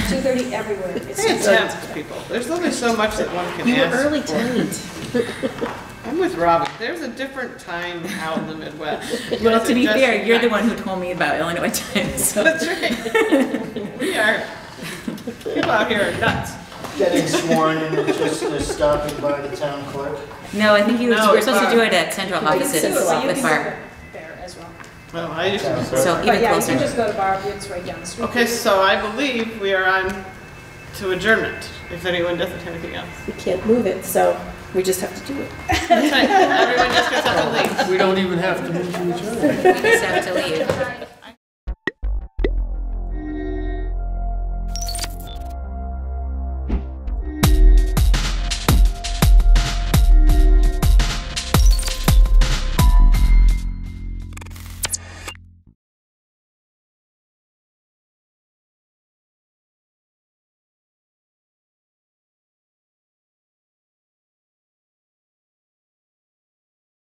2:30 everywhere. It's It's intense, people. There's only so much that one can You were ask early for. tonight. I'm with Robin. There's a different time out in the Midwest. Well, to be Just- fair, you're the one who told me about Illinois time, so. That's right. We are, people out here are nuts. Getting sworn in and just uh, stopping by the town clerk. No, I think you, No, we're supposed to it's do it at central You can offices see it, but you with can Barb, go There as well. Well, I usually Town clerk. so But even yeah, you can closer. just go to Barb, it's right down the street. Okay, so I believe we are on to adjournment, if anyone doesn't have anything else. We can't move it, so we just have to do it. That's right. Everyone just gets up and leaves. We don't even have to move to each other. We just have to leave. Right.